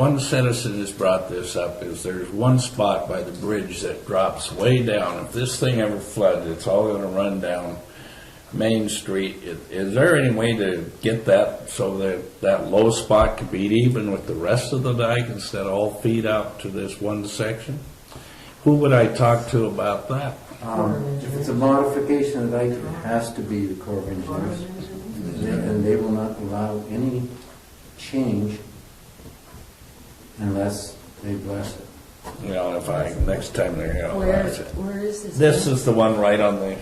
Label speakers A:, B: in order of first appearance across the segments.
A: One citizen has brought this up, is there's one spot by the bridge that drops way down. If this thing ever floods, it's all gonna run down Main Street. I- Is there any way to get that so that that low spot could be even with the rest of the dike instead of all feet out to this one section? Who would I talk to about that?
B: Um, If it's a modification of the dike, it has to be the Corps of Engineers. And they will not allow any change unless they bless it.
A: You know, if I, next time they're gonna
C: Where,
A: authorize it.
C: where is this?
A: This is the one right on the,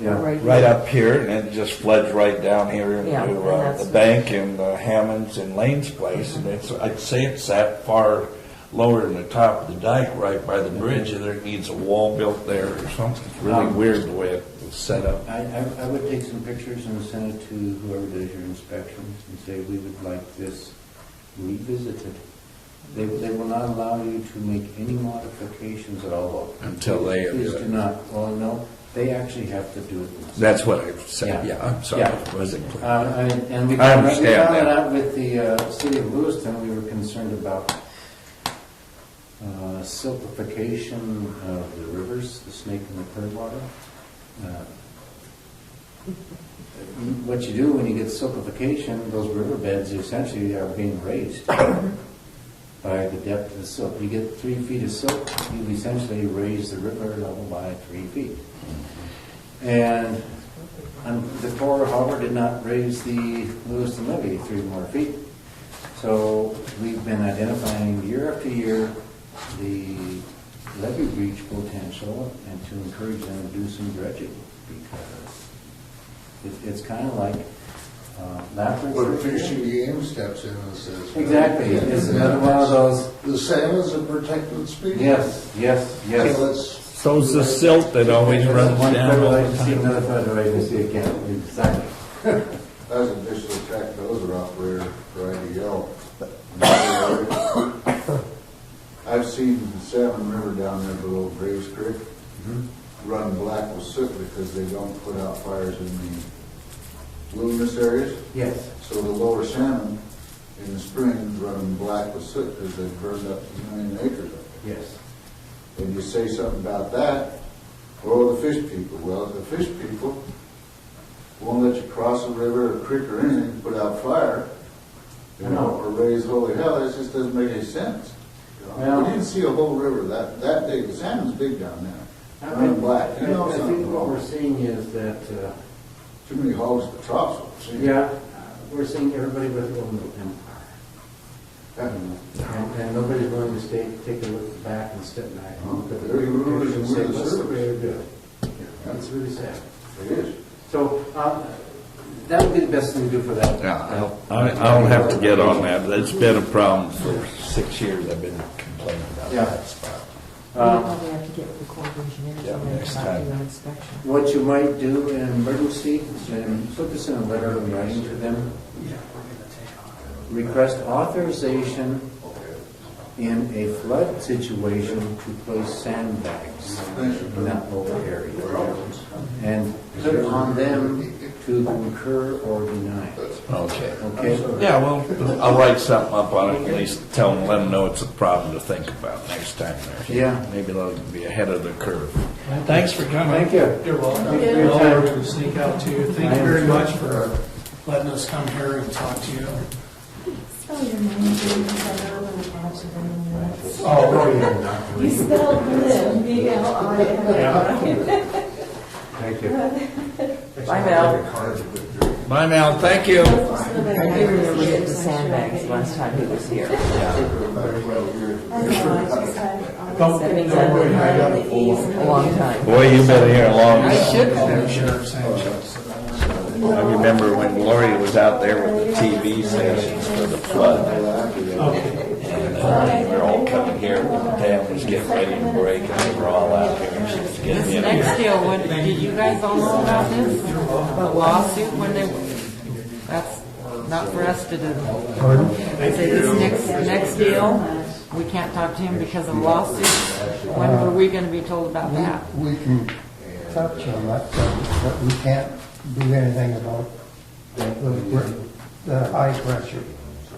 B: Yeah,
C: Uh,
A: right up here, and it just floods right down here
C: Yeah,
A: into
C: and
A: uh,
C: that's-
A: the bank and uh, Hammond's and Lane's place, and it's, I'd say it's that far lower than the top of the dike, right by the bridge, and there needs a wall built there or something. It's Really
B: Um,
A: weird the way it was set up.
B: I, I I would take some pictures and send it to whoever does your inspection and say, we would like this revisited. They, they will not allow you to make any modifications at all.
A: Until they- uh,
B: Please do not, well, no, they actually have to do it themselves.
A: That's what I said,
B: Yeah.
A: yeah, I'm sorry,
B: Yeah.
A: it wasn't clear.
B: Uh, And and we
A: I
B: found we
A: understand
B: found
A: that.
B: that out with the uh, city of Lewiston, we were concerned about uh, siltification of the rivers, the Snake and the Clearwater. Uh, What you do when you get siltification, those riverbeds essentially are being raised by the depth of the silt. You get three feet of silt, you've essentially raised the river level by three feet. And um, the Corps, however, did not raise the Lewiston levy three more feet. So we've been identifying year after year the levy breach potential and to encourage them to do some dredging because it- it's kind of like uh, Lapland.
D: Where fishing game steps in and says.
B: Exactly, it's another one of those,
D: The salmon's a protected species.
B: yes, yes, yes.
D: So it's-
A: So it's the silt that always
B: There's
A: runs
B: One
A: down all
B: federal
A: the
B: agency,
A: time.
B: another federal agency again, exactly.
D: As a vicious attack, those are out there trying to yell. I've seen Salmon River down there below Graves Creek run black with soot because they don't put out fires in the wilderness areas.
B: Yes.
D: So the lower salmon in the spring running black with soot because they've burned up a million acres up there.
B: Yes.
D: And you say something about that, oh, the fish people, well, the fish people won't let you cross a river or creek or anything, put out fire, you know, or raise holy hell, it just doesn't make any sense. You know,
B: Well-
D: We didn't see a whole river that, that big, the salmon's big down there,
B: I
D: running
B: think I
D: black, you know,
B: think
D: something
B: what we're
D: wrong.
B: seeing is that, uh,
D: Too many hogs for troughs, see?
B: yeah, uh, we're seeing everybody with a little empire. And, and nobody's willing to stay, take a look back and step back. and look at the
D: They're the rulers
B: picture and
D: and
B: say,
D: we're the
B: "What's the way
D: servants."
B: to do it?" Yeah, It's really sad.
D: It is.
B: So, uh, that would be the best thing to do for that.
A: Yeah, I'll- I- I'll have to get on that. It's been a problem for six years. I've been complaining about
B: Yeah.
A: that spot.
C: We
B: Um,
C: probably have to get with the Corps of Engineers
A: Yeah,
C: on there
A: next
C: about
A: time.
C: doing inspection.
B: What you might do in emergency, and put this in a letter of writing to them, request authorization in a flood situation to place sandbags in that local area. And put it on them to concur or deny it,
A: Okay.
B: okay?
A: Yeah, well, I'll write something up on it, at least tell them, let them know it's a problem to think about next time. they're here.
B: Yeah.
A: Maybe they'll be ahead of the curve. Thanks for coming.
B: Thank you.
E: You're welcome.
B: Thank you.
E: Well, we're gonna sneak out to you. Thank you very much for letting us come here and talk to you.
F: Spell your name, please, I know I'm gonna catch it in a minute.
E: Oh,
F: You spelled live, B L I N.
B: Thank you.
C: Bye, Mel.
A: Bye, Mel, thank you.
C: I do remember getting the sandbags last time he was here.
F: I know, I just had always
E: Don't-
F: said
C: don't worry, I
E: got
F: the E's and the
C: A long
F: U's.
C: time.
A: Boy, you've been here a long
E: I
A: time.
E: should call the sheriff's handshakes.
A: I remember when Gloria was out there with the TV stations for the flood. And uh, we were all coming here, when the dam was getting ready to break, and we were all out here, and she was getting in.
G: Next deal, what, did you guys all know about this? About lawsuit when they, that's not for us to do. I say this next, next deal, we can't talk to him because of lawsuits. When were we gonna be told about that?
H: We can talk to them, but, but we can't do anything about the, the high pressure.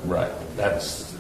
A: Right, that's,